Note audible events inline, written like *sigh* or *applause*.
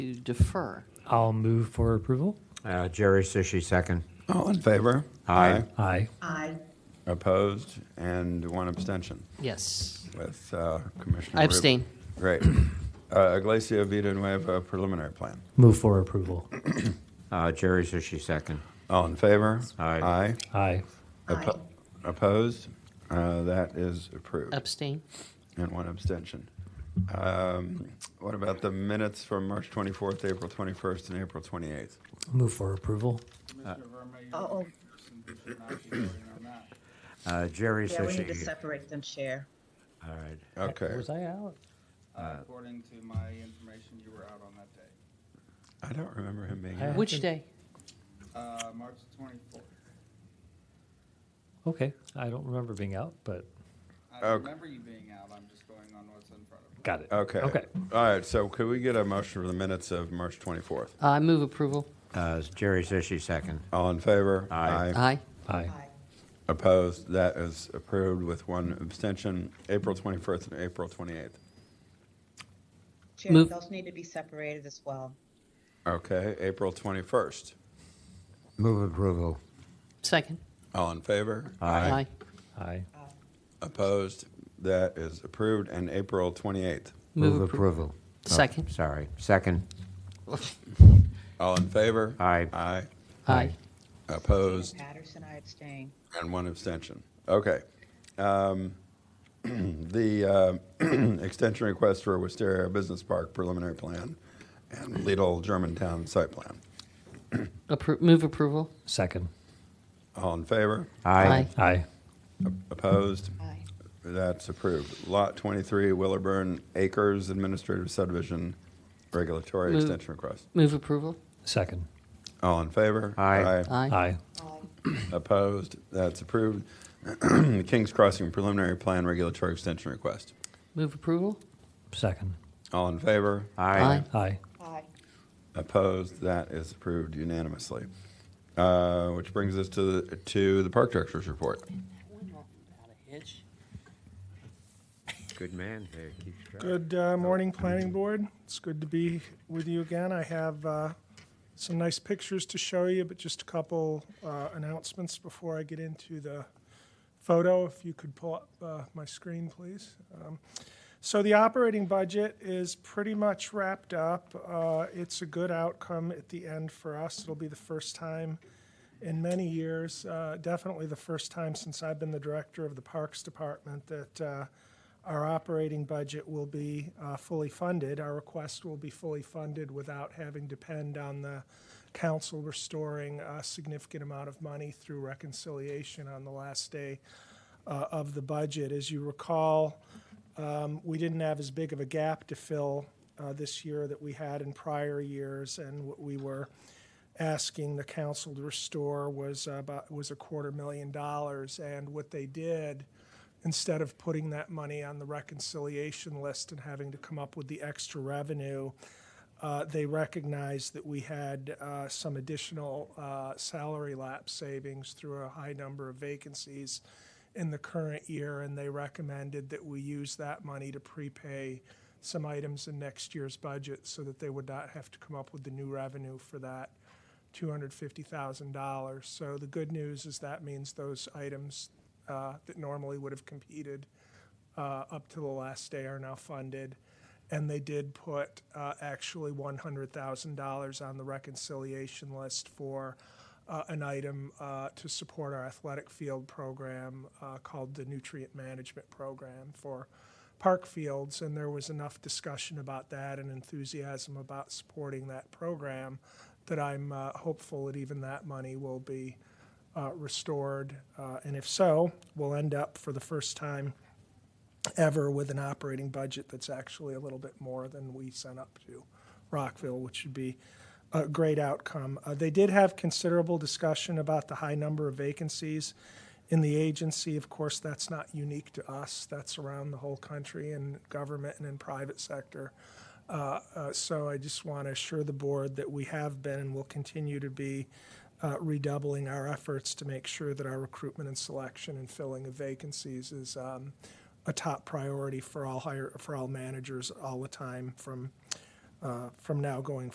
to defer. I'll move for approval. Uh, Jerry Sushi, second. All in favor? Aye. Aye. Aye. Opposed, and one abstention Yes. with uh, Commissioner. I Rubin. abstain. Great. Uh, Iglesia Vita Nueva preliminary plan. Move for approval. Uh, Jerry Sushi, second. All in favor? Aye. Aye. Aye. Oppo- Opposed? Uh, That is approved. Abstain. And one abstention. Um, What about the minutes from March 24th, April 21st, and April 28th? Move for approval. Mr. Verma, you Uh-oh. should not be voting on that. Uh, Jerry Yeah, we need to Sushi. separate them, Chair. All right. Okay. Was I out? uh, According to my information, you were out on that day, I don't remember him being I- here. Which day? Uh, March 24th. Okay. I don't remember being out, but I Okay. remember you being out, I'm just going on what's in front of me. got it. Okay. Okay. All right, so could we get a motion for the minutes of March 24th? I move approval. Uh, Jerry Sushi, second. All in favor? Aye. Aye. Aye. Opposed? That is approved with one abstention, April 21st and April 28th. Chair, Move- those need to be separated as well. Okay, April 21st. Move approval. Second. All in favor? Aye. Aye. Opposed? That is approved, and April 28th. Move approval. Oh, Second. Sorry, second. All in favor? Aye. Aye. Aye. Opposed? Patterson, I abstain. And one abstention. Okay. Um, *clears throat* The uh, *clears throat* extension request for Wisteria Business Park preliminary plan and Lidl Germantown site plan. Appro- Move approval. Second. All in favor? Aye. Aye. Opposed? Aye. That's approved. Lot 23, Wilburn Acres Administrative Subdivision Regulatory Move. Extension Request. Move approval. Second. All in favor? Aye. Aye. Aye. Opposed? That's approved. *clears throat* Kings Crossing Preliminary Plan Regulatory Extension Request. Move approval. Second. All in favor? Aye. Aye. Aye. Opposed? That is approved unanimously. Uh, Which brings us to, the- to the Park Director's Report. Good man, there, keeps track. Good uh, morning, Planning Board. It's good to be with you again. I have uh, some nice pictures to show you, but just a couple uh, announcements before I get into the photo. If you could pull up uh, my screen, please. Um, So the operating budget is pretty much wrapped up. Uh, It's a good outcome at the end for us. It'll be the first time in many years, uh, definitely the first time since I've been the director of the Parks Department, that uh, our operating budget will be uh, fully funded. Our request will be fully funded without having to depend on the council restoring a significant amount of money through reconciliation on the last day uh, of the budget. As you recall, um, we didn't have as big of a gap to fill uh, this year that we had in prior years, and what we were asking the council to restore was about was a quarter million dollars. And what they did, instead of putting that money on the reconciliation list and having to come up with the extra revenue, uh, they recognized that we had uh, some additional uh, salary lapse savings through a high number of vacancies in the current year, and they recommended that we use that money to prepay some items in next year's budget so that they would not have to come up with the new revenue for that $250,000. So the good news is that means those items uh, that normally would have competed uh, up to the last day are now funded. And they did put uh, actually $100,000 on the reconciliation list for uh, an item uh, to support our athletic field program uh, called the Nutrient Management Program for park fields. And there was enough discussion about that and enthusiasm about supporting that program that I'm uh, hopeful that even that money will be uh, restored. Uh, and if so, we'll end up for the first time ever with an operating budget that's actually a little bit more than we sent up to Rockville, which would be a great outcome. Uh, they did have considerable discussion about the high number of vacancies in the agency. Of course, that's not unique to us. That's around the whole country in government and in private sector. Uh, uh, So I just want to assure the board that we have been and will continue to be uh, redoubling our efforts to make sure that our recruitment and selection and filling of vacancies is um, a top priority for all hire, for all managers all the time from, uh, from now going